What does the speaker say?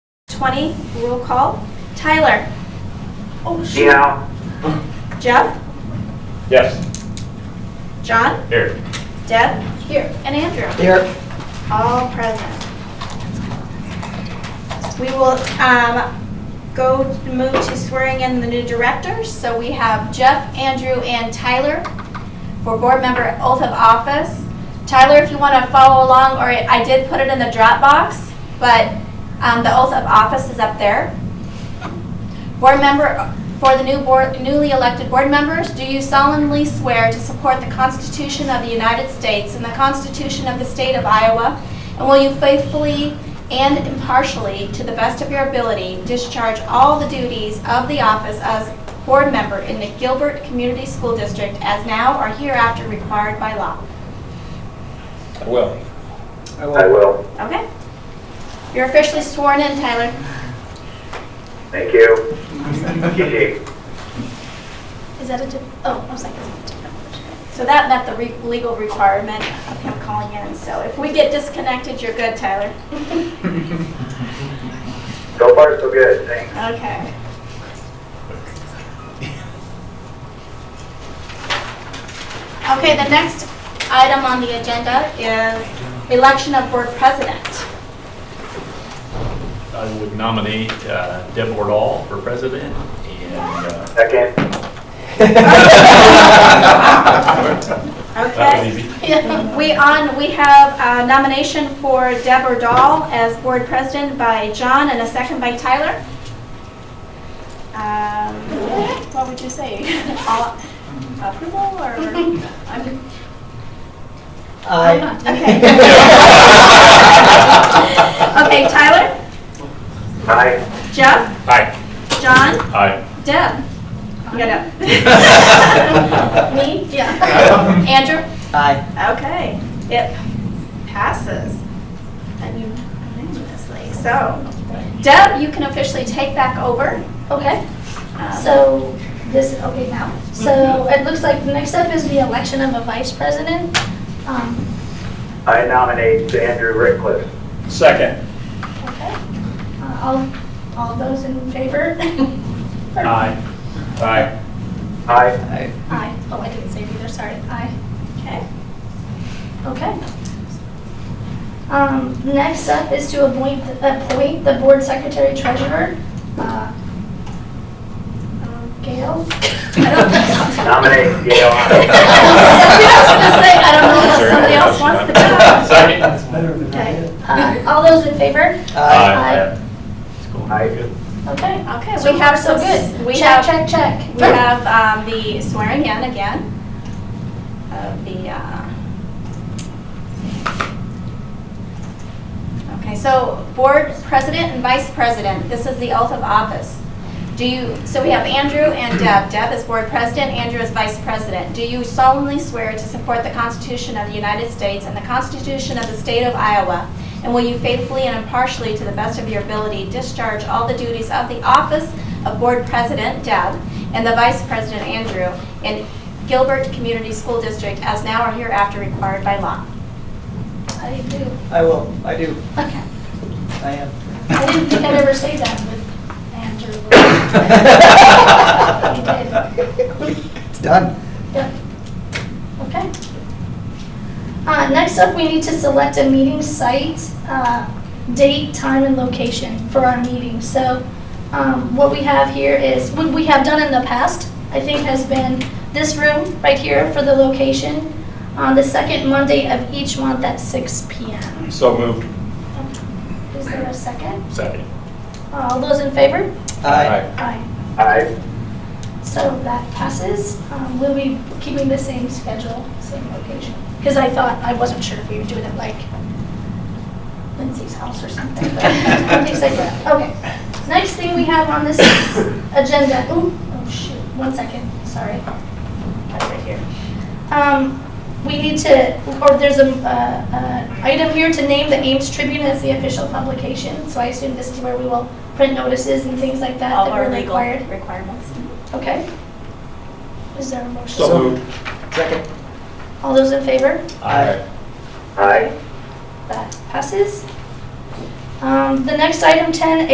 20, roll call. Tyler? Oh, Yeah. Jeff? Yes. John? Here. Deb? Here. And Andrew? Here. All present. We will um, go move to swearing in the new directors. So we have Jeff, Andrew, and Tyler for board member oath of office. Tyler, if you want to follow along, or I did put it in the Dropbox, but um, the oath of office is up there. Board member, for the new board, newly elected board members, do you solemnly swear to support the Constitution of the United States and the Constitution of the State of Iowa? And will you faithfully and impartially, to the best of your ability, discharge all the duties of the office as board member in the Gilbert Community School District as now or hereafter required by law? I will. I will. Okay? You're officially sworn in, Tyler. Thank you. Thank you, Chief. Is that a, di- oh, I was like, that's a different picture. so that met the re- legal requirement of him calling in, so if we get disconnected, you're good, Tyler. So far, so good. Thanks. Okay. Okay, the next item on the agenda is election of board president. I would nominate uh, Deb Ordall for president and uh, Second. that was Okay? easy. We on, we have a nomination for Deborah Dahl as board president by John and a second by Tyler. Um, What would you say? All- Approval or? I'm- Aye. Okay. Okay, Tyler, Aye. Jeff, Aye. John, Aye. Deb. You got it. Me? Yeah. Andrew? Aye. Okay, it passes unanimously. So, Deb, you can officially take back over. Okay, Um, so this, okay now, so it looks like the next step is the election of a vice president. Um, I nominate Andrew Rickliff. Second. Okay, Uh, all, all those in favor? Aye. Aye. Aye. Aye, oh, I didn't say it either, sorry, aye, Okay, okay. Um, Next up is to appoint, appoint the board secretary treasurer. Uh, um, Gail? I don't think so. Nominate Gail Honor. I don't know if somebody else wants the job. Second. Okay, uh, all those in favor? Aye. It's going Aye. good. Okay. okay, So we have so some, good. we check, have, check, check. we have um, the swearing in again of the, uh, okay, so board president and vice president, this is the oath of office. Do you, so we have Andrew and Deb. Deb is board president, Andrew is vice president. Do you solemnly swear to support the Constitution of the United States and the Constitution of the State of Iowa? And will you faithfully and impartially, to the best of your ability, discharge all the duties of the office of board president, Deb, and the vice president, Andrew, in Gilbert Community School District as now or hereafter required by law? I do. I will. I do. Okay. I am. I didn't think I'd ever say that with Andrew. It's done. Yep. Okay. Uh, Next up, we need to select a meeting site, uh, date, time, and location for our meeting. So um, what we have here is, what we have done in the past, I think, has been this room right here for the location on the second Monday of each month at 6 PM. So moved. Is there a second? Second. All those in favor? Aye. Aye. Aye. So that passes. Um, We'll be keeping the same schedule, same location. Because I thought, I wasn't sure if we were doing it like Lindsay's house or something. but Things like that. Okay. Next thing we have on this agenda, ooh, oh shoot, one second, sorry. That's right here. Um, We need to, or there's a, uh, uh, item here to name the Ames Tribune as the official publication. So I assume this is where we will print notices and things like that All that our were legal required. requirements. Okay. Is there a motion? So moved. Second. All those in favor? Aye. Aye. That passes. Um, The next item, 10,